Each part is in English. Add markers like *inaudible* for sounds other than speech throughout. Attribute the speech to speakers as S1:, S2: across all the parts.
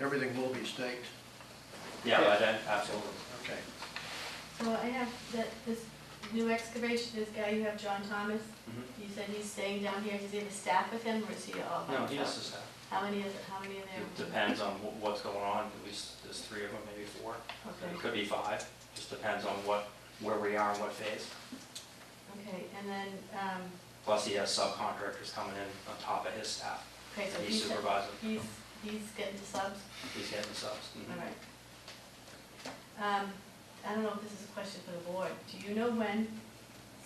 S1: Everything will be staked,
S2: Yeah, by then, absolutely.
S1: okay.
S3: So I have that, this new excavation, this guy you have, John Thomas,
S2: Mhm.
S3: you said he's staying down here, does he have a staff with him, or is he all by
S2: No,
S3: himself?
S2: he has to staff.
S3: How many is, how many are
S2: It
S3: there?
S2: depends on wh- what's going on, at least there's three of them, maybe four. It
S3: Okay,
S2: could be five, just depends on what, where we are and what phase.
S3: okay, and then, um,
S2: Plus, he has subcontractors coming in on top of his staff.
S3: okay, so
S2: He
S3: he's,
S2: supervises,
S3: he's, he's getting to subs,
S2: he's getting subs. Mm-hmm.
S3: all right. Um, I don't know if this is a question for the board, do you know when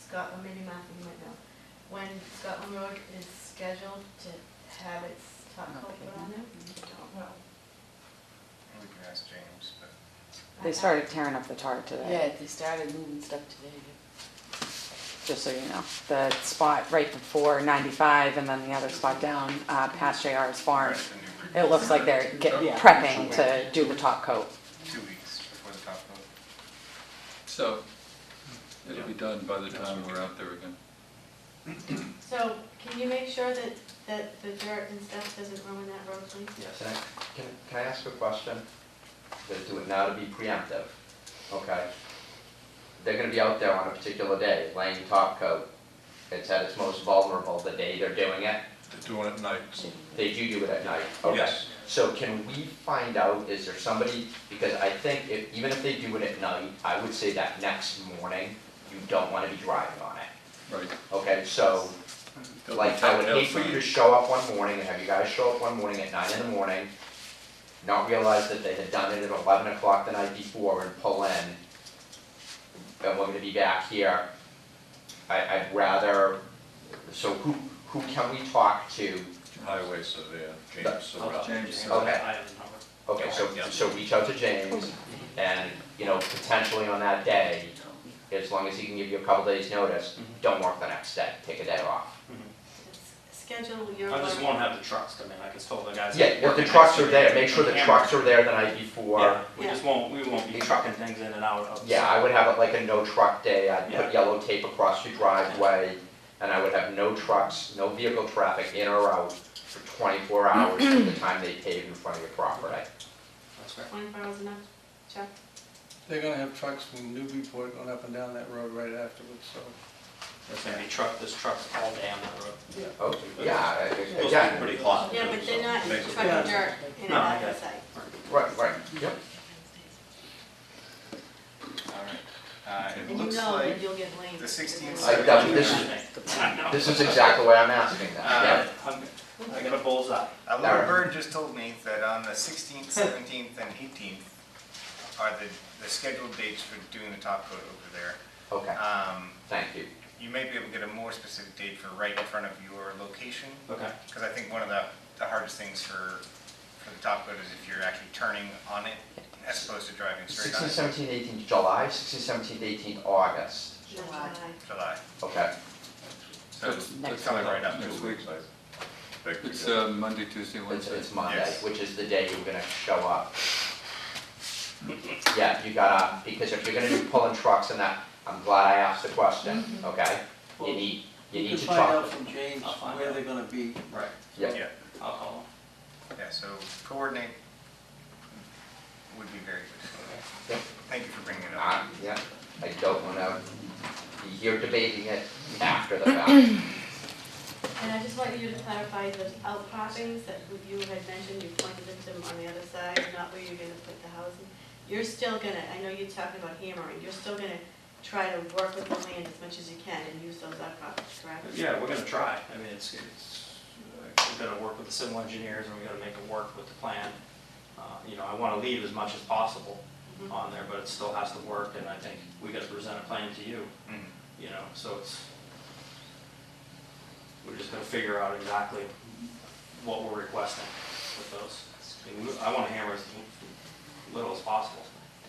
S3: Scott, or maybe Matthew, you might know, when Scotland Road is scheduled to have its top coat put on there?
S4: We can ask James, but
S3: I- I-
S5: They started tearing up the tar today,
S6: Yeah, they started moving stuff today.
S5: just so you know. The spot right before 95 and then the other spot down uh, past JR's farm.
S4: Right, the new-
S5: It looks like they're get-
S4: Yeah.
S5: prepping to do the top coat.
S4: two weeks before the top vote.
S7: So, it'll be done by the time we're out there again.
S3: So can you make sure that, that the dirt and stuff doesn't ruin that road, please?
S2: Yes.
S8: Can I, can, can I ask a question? They're doing now to be preemptive, okay? They're gonna be out there on a particular day, laying top coat. It's at its most vulnerable the day they're doing it.
S4: They're doing it night.
S8: They do do it at night, okay?
S4: Yes.
S8: So can we find out, is there somebody, because I think if, even if they do it at night, I would say that next morning, you don't wanna be driving on it,
S7: Right.
S8: okay? So,
S7: They'll be
S8: like, I would
S7: tacked
S8: hate for you to
S7: outside.
S8: show up one morning, and have you guys show up one morning at nine in the morning, not realize that they had done it at eleven o'clock the night before and pull in, and we're gonna be back here. I, I'd rather, so who, who can we talk to?
S4: Highway surveyor, James
S2: I'll
S4: Surratt.
S2: talk to James.
S7: James.
S8: Okay.
S2: I have his number.
S8: Okay, so, so reach out to James, and, you know, potentially on that day, as long as he can give you a couple days' notice, don't work the next day, take a day off.
S3: S- Schedule your.
S2: I just
S3: work.
S2: won't have the trucks come in, I can tell the guys.
S8: Yeah, if the trucks are there, make sure the
S2: Yeah.
S8: trucks are there the night before.
S2: Yeah, we just won't, we won't be trucking things in and out of. the
S8: Yeah, I would have it like a no truck day, I'd
S2: Yeah.
S8: put yellow tape across your driveway, and I would have no trucks, no vehicle traffic in or out for twenty-four hours from the time they pave in front of your property.
S2: That's great.
S3: Twenty-four hours enough, Chuck?
S1: They're gonna have trucks from Newburyport going up and down that road right afterwards, so.
S2: There's gonna be truck, there's trucks all day on that road.
S8: Oh, yeah, I- I-
S2: Those are
S8: again,
S2: pretty hot.
S3: Yeah, but they're not
S4: Thank you.
S3: trucking dirt in and
S2: No, I
S3: out
S2: got
S3: of
S2: it.
S3: sight.
S8: right, right, yep.
S4: All right. Uh, It
S3: And you
S4: looks
S3: know
S4: like
S3: that you'll get blamed.
S4: 16
S8: I- that- this is-
S2: I know.
S8: This is exactly why I'm asking that,
S2: I'm- I got a bullseye.
S4: a
S8: All
S4: little
S8: right.
S4: bird just told me that on the
S5: *laughs*
S4: 16th, 17th, and 18th are the, the scheduled dates for doing the top coat over there.
S8: yeah, okay,
S2: uh,
S4: Um,
S8: thank you.
S4: You may be able to get a more specific date for right in front of your location,
S2: Okay,
S4: because I think one of the, the hardest things for, for the top coat is if you're actually turning on it as opposed to driving straight on
S8: Sixteen,
S4: it.
S8: seventeen, eighteen, July, sixteen, seventeen, eighteen, August,
S3: Not
S6: July.
S3: July.
S4: July.
S8: okay.
S4: So
S7: That's- that's
S4: coming
S7: not
S4: right up
S7: next
S4: this
S7: week.
S4: week.
S7: It's uh, Monday, Tuesday,
S8: It's,
S7: Wednesday.
S8: it's Monday,
S4: Yes.
S8: which is the day you're gonna show up. Yeah, you gotta, because if you're gonna be pulling trucks and that, I'm glad I asked the question, okay? You need, you need to talk.
S1: from James
S2: I'll find where out.
S1: they're gonna be.
S2: right,
S8: Yeah,
S4: Yeah,
S2: I'll call him.
S4: yeah, so coordinate would be very good.
S8: Yeah.
S4: Thank you for bringing it up.
S8: I, yeah, I don't wanna be here debating it after the fact.
S3: And I just want you to clarify those outcroppings that you had mentioned, you pointed at them on the other side, not where you're gonna put the housing. You're still gonna, I know you're talking about hammering, you're still gonna try to work with the land as much as you can and use those outcroppings, correct?
S2: Yeah, we're gonna try, I mean, it's, it's, uh, we're gonna work with the civil engineers and we're gonna make it work with the plan. Uh, You know, I wanna leave as much as possible
S3: Mhm.
S2: on there, but it still has to work and I think we gotta present a plan to you,
S4: Mhm.
S2: you know, so it's, we're just gonna figure out exactly what we're requesting with those. I mean, we- I wanna hammer as little as possible.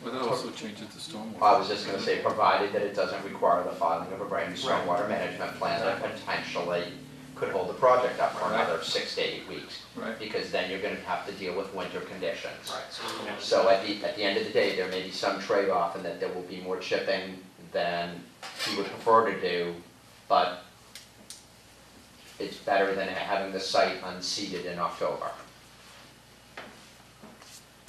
S7: Well, that also changes the stormwater.
S8: I was just gonna say, provided that it doesn't require the filing of a brand new
S2: Right.
S8: stormwater management plan that potentially could hold the project up for
S7: Right.
S8: another six to eight weeks.
S7: Right.
S8: Because then you're gonna have to deal with winter conditions.
S2: Right, so we're gonna.
S8: So at the, at the end of the day, there may be some trade-off in that there will be more chipping than he would prefer to do, but it's better than having the site unseated in October.